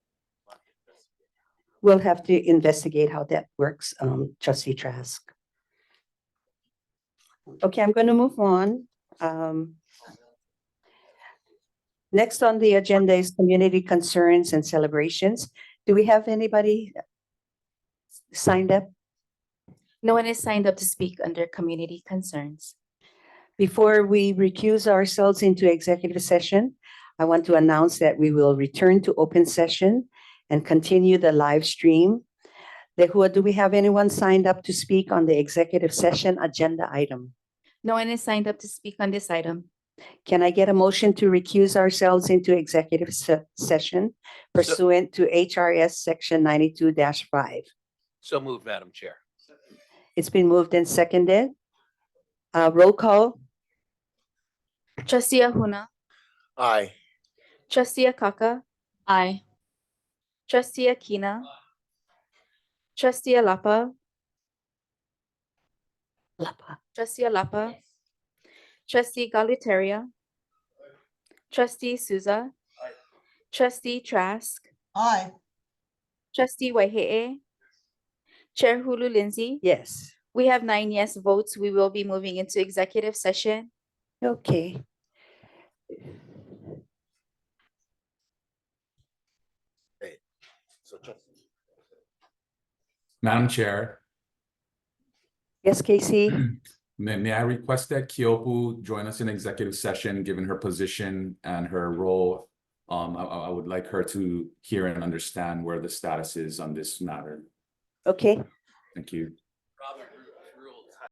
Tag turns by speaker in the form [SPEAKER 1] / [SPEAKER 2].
[SPEAKER 1] we'll have to investigate how that works, um, trustee Trask. Okay, I'm gonna move on. Um. Next on the agenda is community concerns and celebrations. Do we have anybody signed up?
[SPEAKER 2] No one is signed up to speak under community concerns.
[SPEAKER 1] Before we recuse ourselves into executive session, I want to announce that we will return to open session and continue the live stream. Lehua, do we have anyone signed up to speak on the executive session agenda item?
[SPEAKER 2] No one is signed up to speak on this item.
[SPEAKER 1] Can I get a motion to recuse ourselves into executive se- session pursuant to HRS Section ninety-two five?
[SPEAKER 3] So moved, Madam Chair.
[SPEAKER 1] It's been moved and seconded. Uh, roll call,
[SPEAKER 2] Trustee Ahuna,
[SPEAKER 3] Aye.
[SPEAKER 2] trustee Akaka. Aye. Trustee Akina. Trustee Alapa,
[SPEAKER 1] Lapa.
[SPEAKER 2] trustee Alapa. Trustee Galutaria. Trustee Souza. Trustee Trask,
[SPEAKER 4] Aye.
[SPEAKER 2] trustee Wahehe. Chair Hulu Lindsay.
[SPEAKER 1] yes,
[SPEAKER 2] We have nine yes votes. We will be moving into executive session.
[SPEAKER 1] okay.
[SPEAKER 5] Madam Chair,
[SPEAKER 1] Yes, Casey?
[SPEAKER 5] may, may I request that Kyopu join us in executive session, given her position and her role? Um, I, I I would like her to hear and understand where the status is on this matter.
[SPEAKER 1] Okay,
[SPEAKER 5] Thank you.
[SPEAKER 3] Robert.